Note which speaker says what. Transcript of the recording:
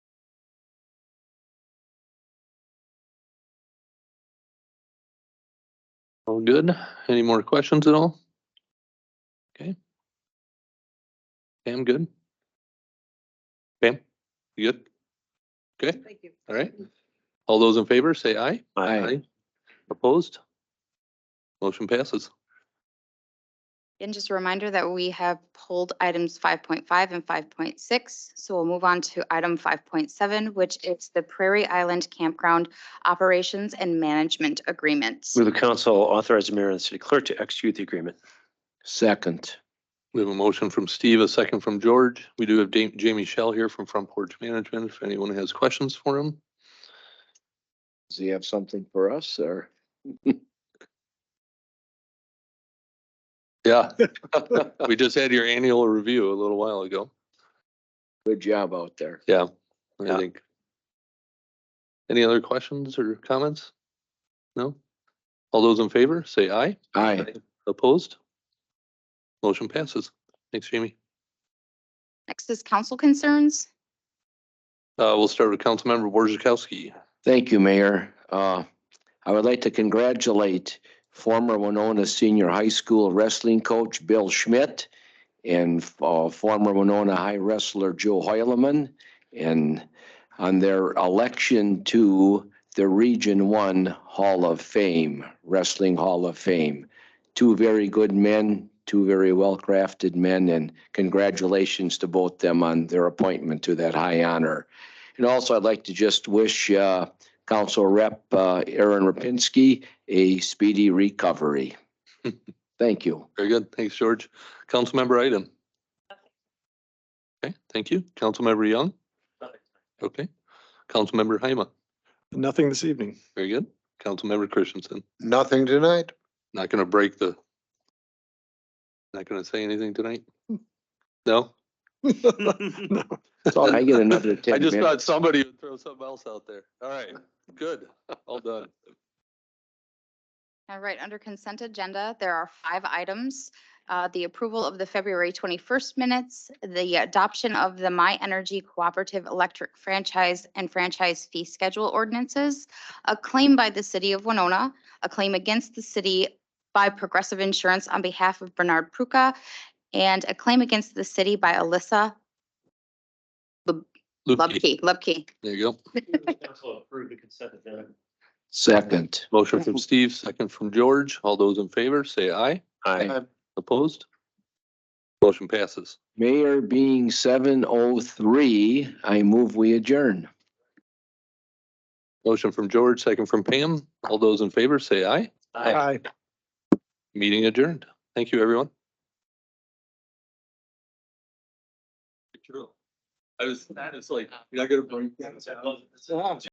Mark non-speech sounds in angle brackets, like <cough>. Speaker 1: All good? Any more questions at all? Okay. Pam, good? Pam, you good? Okay,
Speaker 2: Thank you.
Speaker 1: all right. All those in favor, say aye. Opposed? Motion passes.
Speaker 3: And just a reminder that we have pulled items five point five and five point six. So we'll move on to item five point seven, which is the Prairie Island Campground Operations and Management Agreement.
Speaker 4: Move the council authorize the mayor and the city clerk to execute the agreement.
Speaker 5: Second.
Speaker 1: We have a motion from Steve, a second from George. We do have Da- Jamie Shell here from Front Porch Management, if anyone has questions for him.
Speaker 5: Does he have something for us or?
Speaker 1: Yeah. <laughs> We just had your annual review a little while ago.
Speaker 5: Good job out there.
Speaker 1: Yeah, I
Speaker 4: Yeah.
Speaker 1: think. Any other questions or comments? No? All those in favor, say aye.
Speaker 5: Aye.
Speaker 1: Opposed? Motion passes. Thanks, Jamie.
Speaker 3: Next is council concerns.
Speaker 1: Uh, we'll start with Councilmember Borzakowski.
Speaker 5: Thank you, Mayor. Uh, I would like to congratulate former Winona Senior High School wrestling coach Bill Schmidt and uh, former Winona High wrestler Joe Hoyleman and on their election to the Region One Hall of Fame, Wrestling Hall of Fame. Two very good men, two very well-crafted men, and congratulations to both them on their appointment to that high honor. And also, I'd like to just wish uh, Council Rep uh, Aaron Rapinski a speedy recovery. Thank you.
Speaker 1: Very good. Thanks, George. Councilmember Item. Okay, thank you. Councilmember Young. Okay. Councilmember Haima.
Speaker 6: Nothing this evening.
Speaker 1: Very good. Councilmember Christensen.
Speaker 7: Nothing tonight.
Speaker 1: Not gonna break the. Not gonna say anything tonight?
Speaker 5: <laughs>
Speaker 1: No? <laughs>
Speaker 6: No.
Speaker 5: So I get another 10
Speaker 1: I just
Speaker 5: minutes.
Speaker 1: thought somebody would throw something else out there. All right, good, all done.
Speaker 3: All right, under consent agenda, there are five items. Uh, The approval of the February 21st minutes, the adoption of the My Energy Cooperative Electric Franchise and Franchise Fee Schedule ordinances, a claim by the city of Winona, a claim against the city by Progressive Insurance on behalf of Bernard Pruka, and a claim against the city by Alyssa
Speaker 1: Lupke,
Speaker 3: Lubke. Lubke.
Speaker 1: There you go.
Speaker 4: Council approve <laughs> the consent agenda.
Speaker 5: Second.
Speaker 1: Motion from Steve, second from George. All those in favor, say aye.
Speaker 4: Aye.
Speaker 1: Opposed? Motion passes.
Speaker 5: Mayor being 7:03, I move we adjourn.
Speaker 1: Motion from George, second from Pam. All those in favor, say aye.
Speaker 6: Hi.
Speaker 1: Meeting adjourned. Thank you, everyone. I was, that is like, you're not gonna bring.